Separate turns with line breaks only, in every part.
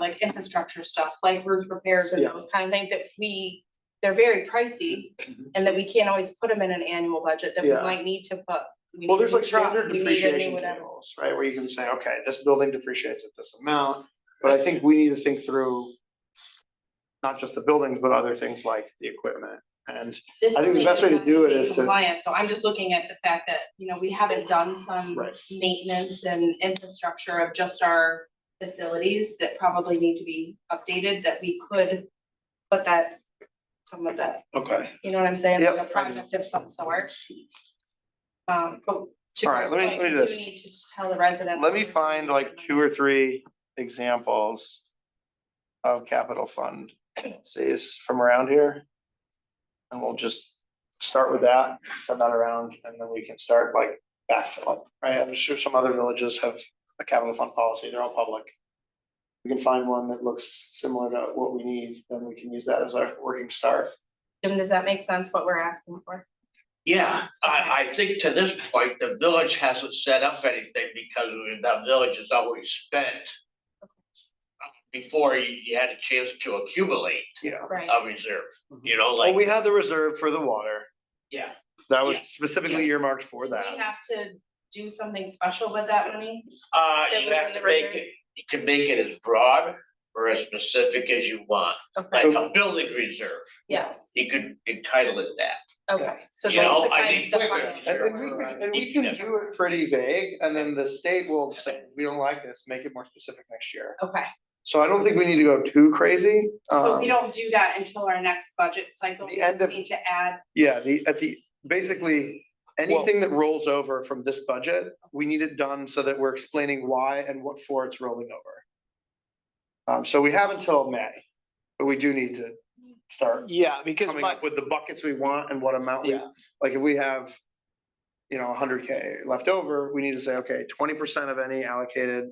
like infrastructure stuff, like roof repairs and
Yeah.
those kind of things that we, they're very pricey. And that we can't always put them in an annual budget that we
Yeah.
might need to put. we need
Well,
a
there's like
new truck,
standard
we need a new
depreciation
whatever.
tables, right, where you can say, okay, this building depreciates at this amount, but I think we need to think through. Not just the buildings, but other things like the equipment and,
This
I think the
plan
best way to
not
do it
being
is to-
compliant, so I'm just looking at the fact that, you know, we haven't done some
Right.
maintenance and infrastructure of just our facilities that probably need to be updated, that we could put that, some of that
okay,
You know what I'm saying,
Yep, I
like a
do.
project of some sort. Um, but to.
All right, let me-
Greg's
let me
point, we
do this.
Need to just tell the resident.
let me find like two or three examples. Of capital fund, says from around here. And we'll just start with that, send that around, and then we can start like backfilling, right, I'm sure some other villages have a capital fund policy, they're all public. We can find one that looks similar to what we need, then we can use that as our working start.
Jim, does that make sense what we're asking for?
Yeah, I, I think to this point, the village hasn't set up anything because the village has always spent before you, you had a chance to accumulate
Yeah.
Right.
a reserve, you know,
Mm-hmm. Well, we
like,
had the reserve for the water,
yeah.
that was
Yeah.
specifically earmarked for
Do we
that,
have to do something special with that money?
Uh,
That
you
was
have
in the
to make
reserve?
it, you can make it as broad or as specific as you want, like
Okay,
a building reserve.
yes,
You could entitle it that.
okay, so
You
that's
know,
the
I
kind of
think
stuff.
we're-
I'm-
And and we can, and we can
Yeah.
do it pretty vague, and then the state will say, we don't like this, make it more specific next year.
Okay,
So I don't think we need to go too crazy.
so we
Um,
don't do that until our next budget cycle,
The
we
end
just
of-
need to add,
Yeah, the, at the, basically, anything that rolls over from this budget, we need it done so that we're explaining why and what for it's rolling over. Um, so we have until May, but we do need to start
Yeah, because
coming
my,
up with the buckets we want and what amount we,
yeah,
like if we have. You know, hundred K left over, we need to say, okay, twenty percent of any allocated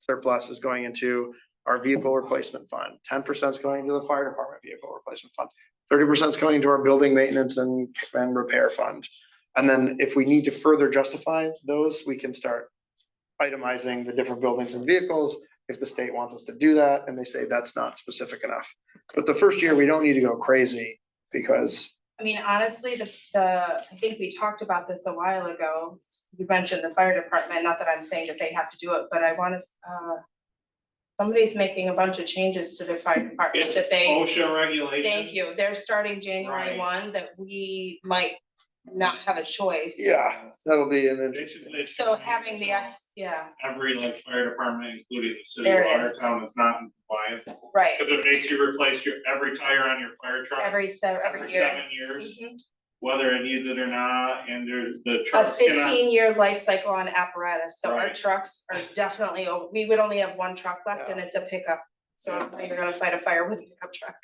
surplus is going into our vehicle replacement fund. Ten percent is going into the fire department vehicle replacement fund. Thirty percent is going into our building maintenance and, and repair fund. And then if we need to further justify those, we can start itemizing the different buildings and vehicles. If the state wants us to do that and they say that's not specific enough. But the first year, we don't need to go crazy because
I mean, honestly, the, the, I think we talked about this a while ago. You mentioned the fire department, not that I'm saying that they have to do it, but I wanna, uh. Somebody's making a bunch of changes to their fire department that they,
OSHA regulations.
thank you, they're starting January
Right.
one, that we might not have a choice.
Yeah, that'll be an interesting.
Basically, it's
So having the, ex, yeah,
Every like fire department, including the city
There
of
it is.
Watertown, is not in compliance.
right,
If it makes you replace your, every tire on your fire truck
every se- every
every
year.
seven years,
Mhm.
whether it needs it or not, and there's the
A
trucks cannot.
fifteen year life cycle on apparatus, so our
Right.
trucks are definitely, o- we would only have one truck left and it's a pickup. So I don't think you're gonna fight a fire with a pickup truck.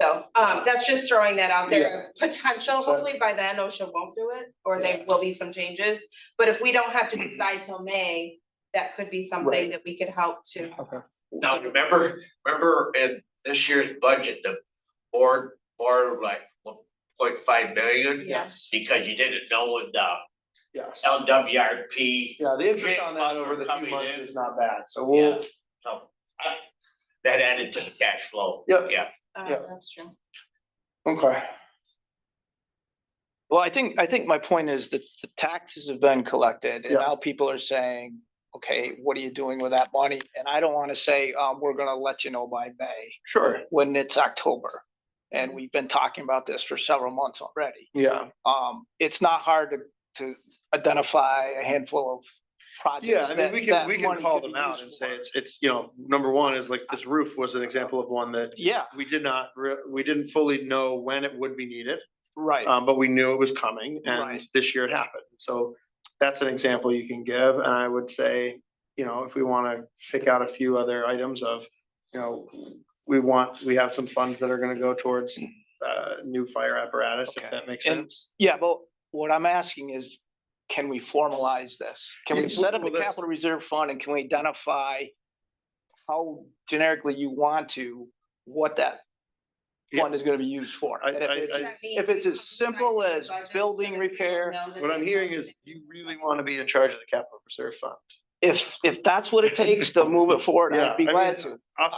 So, um, that's just throwing that out there, potential, hopefully by then OSHA won't do it, or there will be some changes. But if we don't have
Mm-hmm.
to decide till May, that could be something
Right.
that we could help to,
Now, remember, remember in this year's budget, the board, board like one point five million?
Yes.
Because you didn't know when the
Yes.
LWRP,
Yeah, the interest
Grant
on that over the few
coming
months
in.
is not bad, so we'll,
so I, that added to the cash flow.
Yep.
Yeah,
uh,
Yeah.
that's true.
okay,
well, I think, I think my point is that the taxes have been collected and
Yeah.
now people are saying, okay, what are you doing with that money? And I don't want to say, um, we're gonna let you know by May
sure, Mm-hmm.
when it's October. And we've been talking about this for several months already.
yeah,
Um, it's not hard to, to identify a handful of
yeah,
projects
I mean,
that-
we
that
can, we can
money
call
could
them
be
out
used
and
for.
say it's, it's, you know, number one is like, this roof was an example of one that
Yeah,
we did not, re- we didn't fully know when it would be needed,
right.
um, but we knew it was coming, and
Right.
this year it happened, so that's an example you can give, and I would say, you know, if we wanna pick out a few other items of, you know, we want, we have some funds that are gonna go towards, uh, new fire apparatus, if
Okay.
that makes
And-
sense.
Yeah, but what I'm asking is, can we formalize this? Can
Yeah,
we set up
well,
a
that's-
capital reserve fund and can we identify how generically you want to, what that
Yeah.
fund is gonna be used for?
I-
And if
I-
it's-
I-
if it's as simple as building repair-
What I'm hearing is you really want to be in charge of the capital reserve fund.
if, if that's what it takes to move it forward,
Yeah,
I'd be
I mean,
glad to.
I-